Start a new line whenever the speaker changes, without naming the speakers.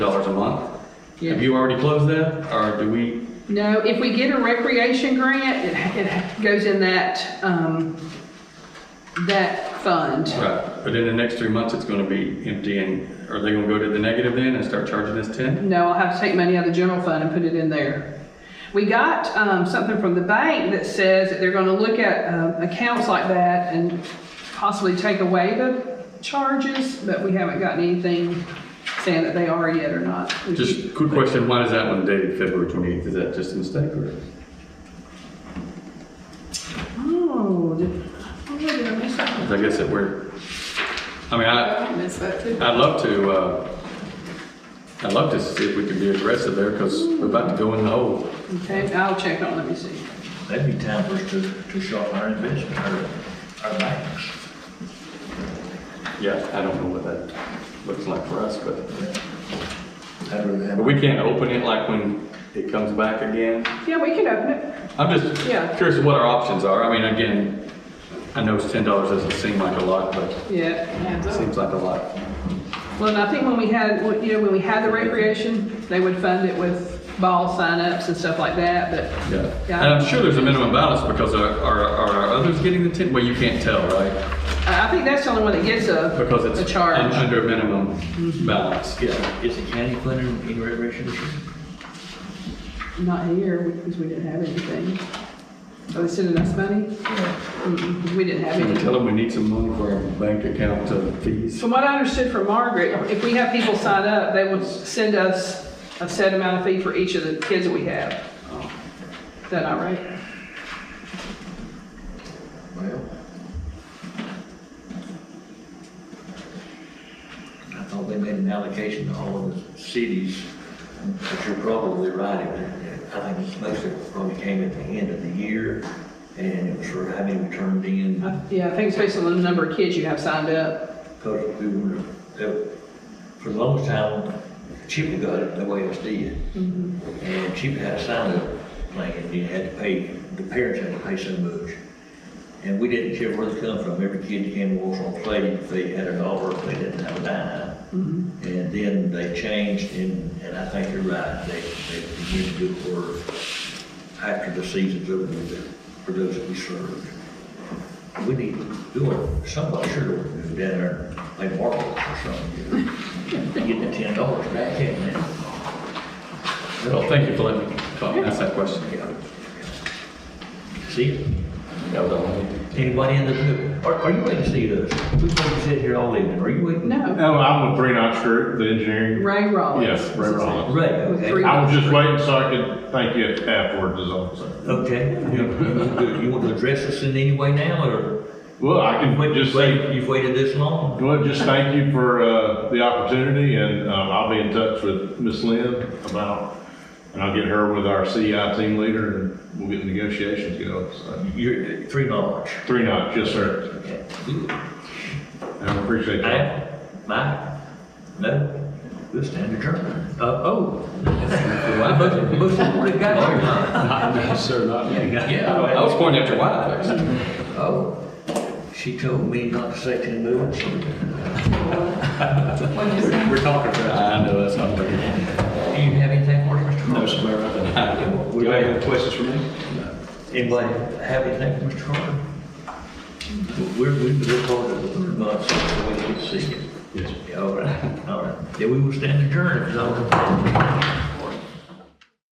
dollars a month.
Yeah.
Have you already closed that, or do we,
No, if we get a recreation grant, it, it goes in that, um, that fund.
right, but in the next three months, it's gonna be empty, and are they gonna go to the negative then and start charging us ten?
No, I'll have to take money out of the general fund and put it in there. We got, um, something from the bank that says that they're gonna look at, um, accounts like that and possibly take away the charges, but we haven't gotten anything saying that they are yet or not. We keep-
Just quick question, why is that one dated February twenty-eighth, is that just a mistake, or?
Oh, did, oh, did I miss that?
'cause I guess that we're, I mean, I,
I missed that too.
I'd love to, uh, I'd love to see if we can be aggressive there, because we're about to go in the hole.
Okay, I'll check on, it, let me see.
That'd be time for us to, to shorten our investment, our, our banks.
Yeah, I don't know what that looks like for us, but,
I'd rather have-
but we can't open it like when it comes back again.
Yeah, we can open it.
I'm just
Yeah.
curious what our options are. I mean, again, I know ten dollars doesn't seem like a lot, but it
Yeah.
seems like a lot.
Well, and I think when we had, when- you know, when we had the recreation, they would fund it with ball signups and stuff like that, but
Yeah.
Yeah.
And I'm sure there's a minimum balance because are, are, are our others getting the ten? Well, you can't tell, right?
I I think that's the only one that gets a,
Because
a
it's un-
charge. Mm-hmm.
under minimum balance.
Is, is the county funding any recreation this year?
Not here, because we didn't have anything. Are they sending us money? Mm-mm, 'cause We didn't have
Can we
any.
tell them we need some money for our bank account uh, fees?
From what I understood from Margaret, if we have people sign up, they will send us a set amount of fee for each of the kids that we have. Is that not right?
Well. I thought they made an allocation to all of the cities, but you're probably right. It- I think this most of it probably came at the end of the year, and it was for how many were turned in.
I- Yeah, I think it's based on the number of kids you have signed up.
Because we were, uh, for the longest time, Chippa got it the way it was did. And Chippa had a sign up plan, and you had to pay, the parents had to pay so much. And we didn't care where they come from, every kid that came was on play, if they had a dollar, if they didn't have a dime. And then they changed, and, and I think you're right, they, they began to do it for, after the season's over, with the- for those that we served. We need to do it, somebody should have moved down there and played marbles or something. Getting the ten dollars back in there.
Well, thank you for letting me come ask that question.
Yeah. See,
That was all I needed.
anybody in the group, are, are you waiting to see us? We're going to sit here all evening, are you waiting?
No,
Oh, I'm with Breen Oxford, the engineering.
Ray Rollins.
Yes, Ray Rollins.
Right, okay.
Three.
I was just waiting so I could thank you afterwards is all I'm saying.
Okay, you, you- you want to address us in any way now, or?
Well, I can
Wait,
just say,
wait, You've waited this long?
well, just thank you for, uh, the opportunity and, um, I'll be in touch with Miss Lynn about, and I'll get her with our CI team leader and we'll get the negotiations going, so.
You're, three dollars.
Three knots, yes, sir.
Okay.
And I appreciate that.
Al, Mike, no, this stand adjourned. Uh, oh. Why, but, but somebody got it. Yeah,
I was
well,
going after wild things.
oh, she told me not to say ten minutes.
I know, that's not fair.
Do you have anything for us, Mr. Carter? No, sir,
Do you have any questions for me?
Anybody have anything for Mr. Carter? We're, we look forward to the third month, so we can see you. Yes. All right, all right. Yeah, we will stand adjourned, so.